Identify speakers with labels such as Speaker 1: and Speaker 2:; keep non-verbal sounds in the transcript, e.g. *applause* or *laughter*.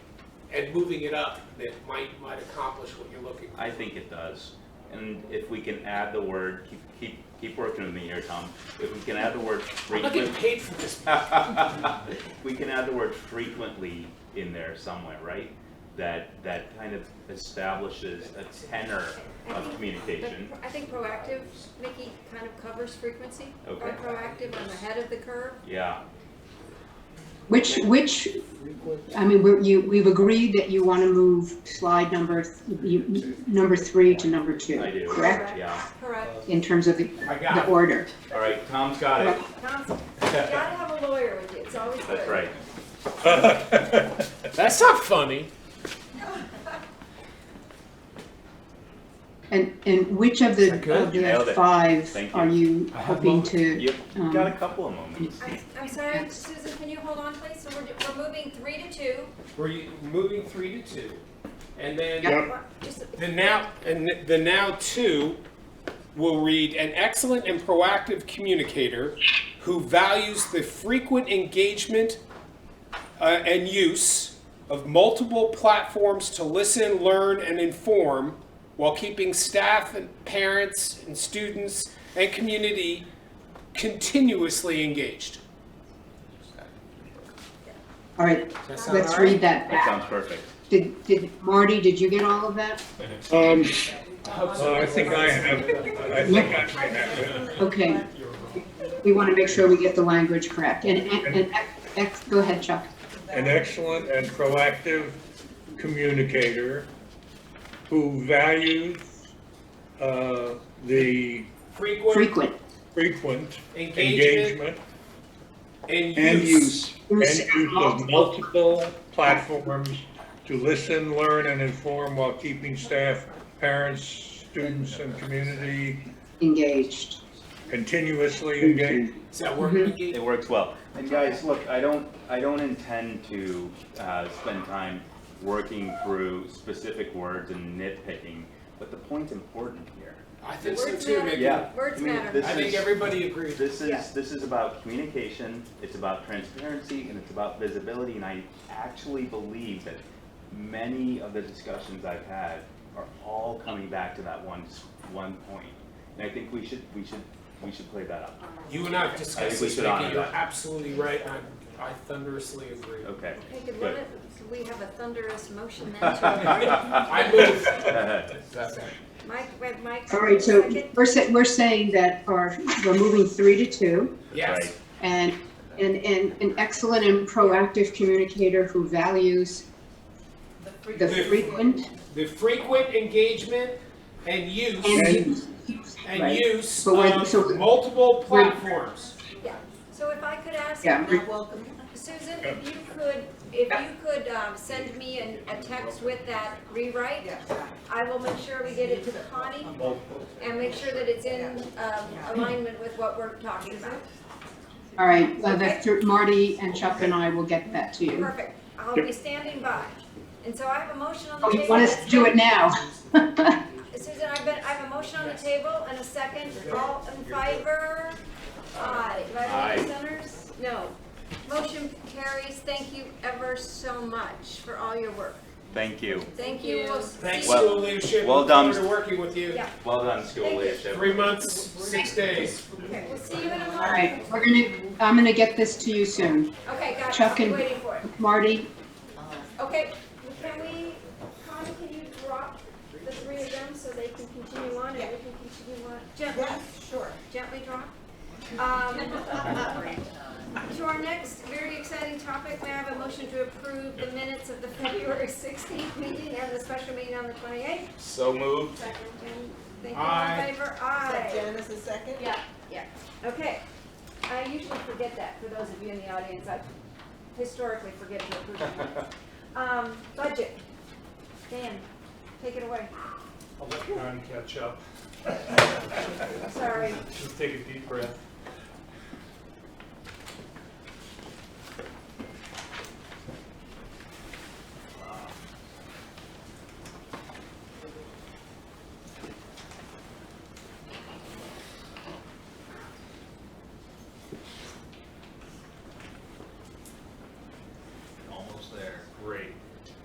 Speaker 1: and moving it up that might, might accomplish what you're looking for.
Speaker 2: I think it does. And if we can add the word, keep, keep, keep working with me here, Tom. If we can add the word
Speaker 1: I'm not getting
Speaker 2: frequent,
Speaker 1: paid for this.
Speaker 2: *laughs* we can add the word frequently in there somewhere, right? That, that kind of establishes a tenor of communication.
Speaker 3: I think proactive, Nikki, kind of covers frequency.
Speaker 2: Okay.
Speaker 3: Or proactive, I'm ahead of the curve.
Speaker 2: Yeah,
Speaker 4: Which, which, I mean, we're, you, we've agreed that you want to move slide number, th- you, number three to number two.
Speaker 2: I do.
Speaker 4: Correct?
Speaker 2: Yeah.
Speaker 3: Correct.
Speaker 4: In terms of the,
Speaker 1: I
Speaker 4: the
Speaker 1: got it.
Speaker 4: order.
Speaker 2: All right, Tom's got it.
Speaker 3: Tom, you gotta have a lawyer with you, it's always good.
Speaker 2: That's right.
Speaker 1: That's not funny.
Speaker 4: And, and which of the,
Speaker 1: Is that good?
Speaker 4: of the
Speaker 2: Nailed it.
Speaker 4: five
Speaker 2: Thank you.
Speaker 4: are you
Speaker 5: I have
Speaker 4: hoping
Speaker 5: moment.
Speaker 4: to?
Speaker 2: You've
Speaker 4: um,
Speaker 2: got a couple of moments.
Speaker 3: I'm, I'm sorry, Susan, can you hold on please? So we're, we're moving three to two.
Speaker 1: We're u- moving three to two. And then.
Speaker 3: Just-
Speaker 1: The now and the now two will read an excellent and proactive communicator who values the frequent engagement uh, and use of multiple platforms to listen, learn, and inform while keeping staff and parents and students and community continuously engaged.
Speaker 4: All right,
Speaker 1: Does that sound
Speaker 4: let's
Speaker 1: all right?
Speaker 4: read that
Speaker 2: That
Speaker 4: back.
Speaker 2: sounds perfect.
Speaker 4: Did, did, Marty, did you get all of that?
Speaker 6: Um, uh, I think I have, I think I may have.
Speaker 4: Okay. We want to make sure we get the language correct. And, and, and ex, go ahead, Chuck.
Speaker 6: An excellent and proactive communicator who values, uh, the
Speaker 1: Frequent
Speaker 4: Frequent.
Speaker 6: frequent
Speaker 1: engagement and
Speaker 6: engagement and
Speaker 1: use.
Speaker 6: use, and use of multiple platforms to listen, learn, and inform while keeping staff, parents, students, and community
Speaker 4: Engaged.
Speaker 6: continuously engaged.
Speaker 1: Is that word
Speaker 4: Mhm.
Speaker 1: engaged?
Speaker 2: It works well. And guys, look, I don't, I don't intend to uh, spend time working through specific words and nitpicking, but the point's important here.
Speaker 1: I think so
Speaker 3: Words
Speaker 1: too,
Speaker 3: matter.
Speaker 1: Mickey.
Speaker 2: Yeah.
Speaker 3: Words
Speaker 2: I mean,
Speaker 3: matter.
Speaker 2: this
Speaker 1: I think
Speaker 2: is-
Speaker 1: everybody agrees.
Speaker 2: This
Speaker 3: Yeah.
Speaker 2: is, this is about communication, it's about transparency, and it's about visibility, and I actually believe that many of the discussions I've had are all coming back to that one, s- one point. And I think we should, we should, we should play that up.
Speaker 1: You and I have
Speaker 2: I
Speaker 1: discussed
Speaker 2: think we
Speaker 1: this,
Speaker 2: should
Speaker 1: Mickey,
Speaker 2: honor
Speaker 1: you're
Speaker 2: that. Uh,
Speaker 1: absolutely right, and I, I thunderously agree.
Speaker 2: Okay. *laughs*
Speaker 3: Hey, could one
Speaker 2: Good.
Speaker 3: of, could we have a thunderous motion then
Speaker 2: *laughs*
Speaker 3: to,
Speaker 1: I move.
Speaker 3: Mike, wait, Mike?
Speaker 4: All right, so
Speaker 3: second?
Speaker 4: we're saying, we're saying that our, we're moving three to two
Speaker 1: Yes,
Speaker 4: and, and, and an excellent and proactive communicator who values the frequent
Speaker 1: the frequent engagement and use,
Speaker 4: and use.
Speaker 1: and
Speaker 4: right.
Speaker 1: use
Speaker 4: But we're- so
Speaker 1: of
Speaker 4: we're-
Speaker 1: multiple
Speaker 4: we're-
Speaker 1: platforms.
Speaker 3: Yeah, so if I could ask,
Speaker 4: Yeah.
Speaker 3: Susan, if you could, if you could, um, send me an, a text with that rewrite, I will make sure we get it to Connie and make sure that it's in, um, alignment with what we're talking about.
Speaker 4: All right, uh, the thr- Marty and Chuck and I will get that to you.
Speaker 3: Perfect, I'll be standing by. And so I have a motion on the
Speaker 4: Oh,
Speaker 3: table.
Speaker 4: you want us to do it now?
Speaker 3: Susan, I've been, I have a motion on the table and a second, all in favor? Aye. Do I have any dissenters? No. Motion carries, thank you ever so much for all your work.
Speaker 2: Thank you.
Speaker 3: Thank you. We'll see
Speaker 1: Thanks,
Speaker 3: you.
Speaker 2: Well-
Speaker 1: school leadership,
Speaker 2: well
Speaker 1: look
Speaker 2: done.
Speaker 1: forward to working with you.
Speaker 3: Yeah.
Speaker 2: Well done, school
Speaker 3: Thank you.
Speaker 2: leadership.
Speaker 1: Three months, six days.
Speaker 3: Okay, We'll see you in a month.
Speaker 4: All right, we're gonna, I'm gonna get this to you soon.
Speaker 3: Okay, got it, I'll
Speaker 4: Chuck
Speaker 3: be
Speaker 4: and-
Speaker 3: waiting for it.
Speaker 4: Marty,
Speaker 3: Okay, can we, Connie, can you drop the three of them so they can continue on and we can continue on? Gently.
Speaker 7: sure.
Speaker 3: gently drop. Um, To our next very exciting topic, may I have a motion to approve the minutes of the February 16th meeting and the special meeting on the 28th?
Speaker 2: So moved.
Speaker 3: And Thank you, all
Speaker 1: Aye.
Speaker 3: in favor?
Speaker 7: So
Speaker 3: Aye.
Speaker 7: Janice is second?
Speaker 3: Yeah, yeah, okay. I usually forget that, for those of you in the audience, I historically forget to approve the minutes. Um, Budget, Dan, take it away,
Speaker 8: I'll let Karen catch up.
Speaker 3: sorry.
Speaker 8: Just take a deep breath.